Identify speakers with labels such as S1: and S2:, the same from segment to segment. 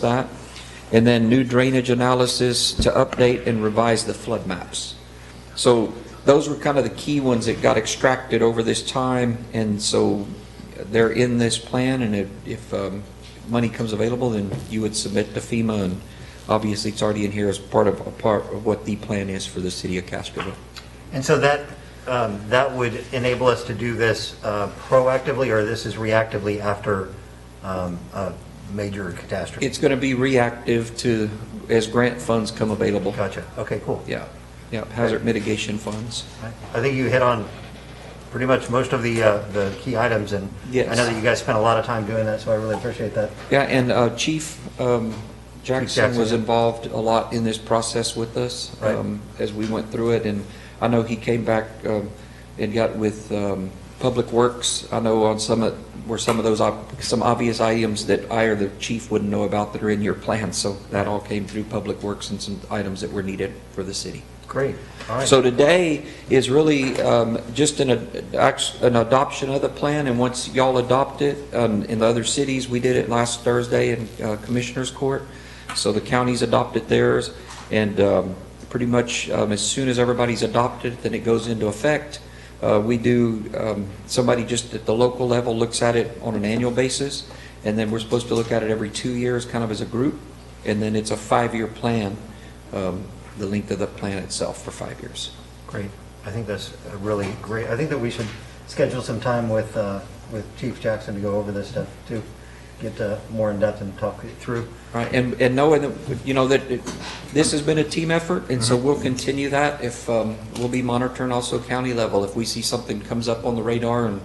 S1: that. And then new drainage analysis to update and revise the flood maps. So those were kind of the key ones that got extracted over this time, and so they're in this plan, and if, if um, money comes available, then you would submit to FEMA, and obviously it's already in here as part of, a part of what the plan is for the city of Castroville.
S2: And so that, um, that would enable us to do this uh, proactively, or this is reactively after um, a major catastrophe?
S1: It's going to be reactive to, as grant funds come available.
S2: Gotcha, okay, cool.
S1: Yeah, yeah, hazard mitigation funds.
S2: I think you hit on pretty much most of the, uh, the key items, and I
S1: Yes.
S2: know that you guys spent a lot of time doing that, so I really appreciate that.
S1: Yeah, and uh, Chief um, Jackson
S2: Jackson,
S1: was
S2: yeah.
S1: involved a lot in this process with us
S2: Right.
S1: um, as we went through it, and I know he came back um, and got with um, Public Works. I know on some, of- were some of those, ob- some obvious items that I or the chief wouldn't know about that are in your plan, so that all came through Public Works and some items that were needed for the city.
S2: Great, all right.
S1: So today is really um, just an, ad- act- an adoption of the plan, and once y'all adopt it, um, in the other cities, we did it last Thursday in uh, Commissioners Court, so the counties adopted theirs, and um, pretty much um, as soon as everybody's adopted, then it goes into effect. Uh, We do, um, somebody just at the local level looks at it on an annual basis, and then we're supposed to look at it every two years, kind of as a group, and then it's a five-year plan um, the length of the plan itself for five years.
S2: Great, I think that's a really great, I think that we should schedule some time with, uh, with Chief Jackson to go over this stuff, too, get uh, more in-depth and talk it through.
S1: Right, and, and knowing that, you know, that it- this has been a team effort, and so we'll continue that if, um, we'll be monitoring also county level. If we see something comes up on the radar, and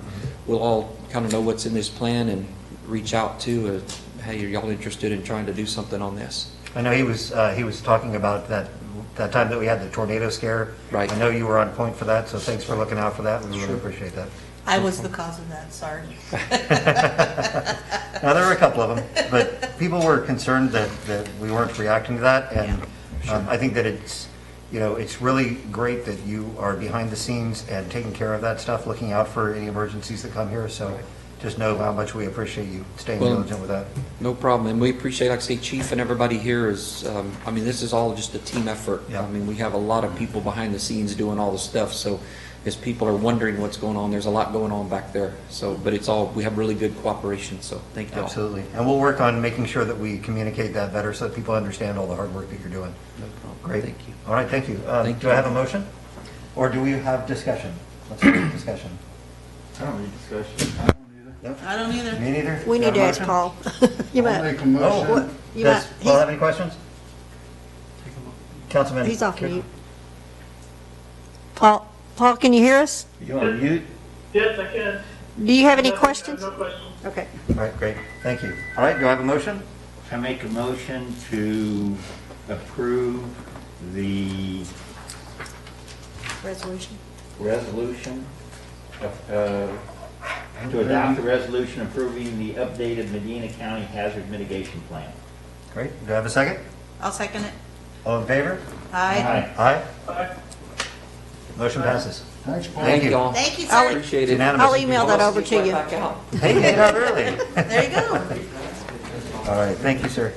S1: we'll all kind of know what's in this plan and reach out to, uh, hey, are y'all interested in trying to do something on this?
S2: I know he was, uh, he was talking about that, that time that we had the tornado scare.
S1: Right.
S2: I know you were on point for that, so thanks for looking out for that. We really appreciate that.
S3: I was the cause of that, sorry.
S2: Now, there were a couple of them, but people were concerned that, that we weren't reacting to that. And um, I think that it's, you know, it's really great that you are behind the scenes and taking care of that stuff, looking out for any emergencies that come here. So just know how much we appreciate you staying
S1: Well-
S2: diligent with that.
S1: No problem, and we appreciate, like I say, Chief and everybody here is, um, I mean, this is all just a team effort.
S2: Yeah.
S1: I mean, we have a lot of people behind the scenes doing all the stuff, so as people are wondering what's going on, there's a lot going on back there. So, but it's all, we have really good cooperation, so thank you all.
S2: Absolutely. And we'll work on making sure that we communicate that better so that people understand all the hard work that you're doing.
S1: No problem.
S2: Great.
S1: Thank you.
S2: All right, thank you. Uh,
S1: Thank
S2: Do I
S1: you.
S2: have a motion? Or do we have discussion? Let's have discussion.
S4: I don't need discussion. I don't need it.
S2: No?
S3: I don't either.
S2: Me neither?
S5: We
S2: Do I
S5: need to
S2: have a
S5: ask
S2: motion?
S5: Paul. You
S4: I'll
S5: might,
S4: make a motion.
S2: Oh,
S5: What? you
S2: does
S5: might-
S2: Paul have any questions? Councilman?
S5: he's off mute. Paul, Paul, can you hear us?
S4: You on mute?
S6: Yes, I can.
S5: Do you have any
S6: No,
S5: questions?
S6: No questions.
S5: Okay.
S2: All right, great. Thank you. All right, do I have a motion?
S7: I make a motion to approve the
S5: Resolution.
S7: resolution, uh, to adopt the resolution approving the updated Medina County Hazard Mitigation Plan.
S2: Great. Do I have a second?
S3: I'll second it.
S2: All in favor?
S3: Aye.
S2: Aye.
S6: Aye.
S2: Motion passes.
S4: Thanks, Paul.
S1: Thank you all.
S3: Thank you,
S5: I'll-
S3: sir.
S1: Appreciate
S2: It's
S1: it.
S2: unanimous.
S5: I'll email that over to you.
S2: Hey, you got early.
S3: There you go.
S2: All right, thank you, sir.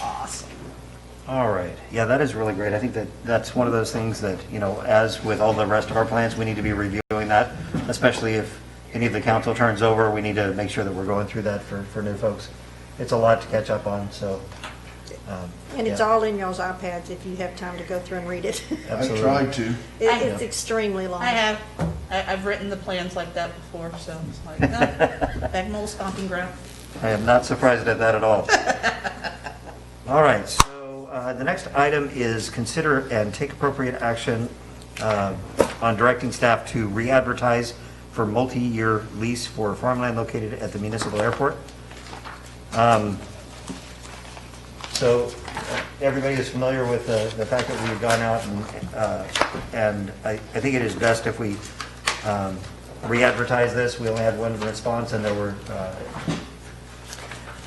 S3: Awesome.
S2: All right. Yeah, that is really great. I think that that's one of those things that, you know, as with all the rest of our plans, we need to be reviewing that, especially if any of the council turns over, we need to make sure that we're going through that for, for new folks. It's a lot to catch up on, so. um,
S5: And it's
S2: yeah,
S5: all in y'all's iPads if you have time to go through and read it. It-
S4: I
S2: absolutely.
S4: tried to.
S5: It's extremely long.
S3: I have, I, I've written the plans like that before, so it's like, no, back my old stomping ground.
S2: I am not surprised at that at all. All right, so uh, the next item is consider and take appropriate action uh, on directing staff to re-advertise for multi-year lease for farmland located at the municipal airport. Um, So uh, everybody is familiar with the the fact that we've gone out and, uh, and I I think it is best if we um, re-advertise this. We only had one response and there were uh,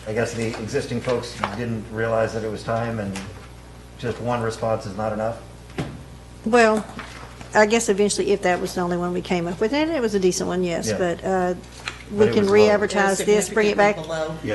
S2: I guess the existing folks didn't realize that it was time, and just one response is not enough?
S5: Well, I guess eventually if that was the only one we came up with, and it was a decent one, yes,
S2: Yeah.
S5: but uh,
S2: But
S5: we
S2: it
S5: can
S2: was low.
S5: re-advertise this, bring it back
S3: Significantly below.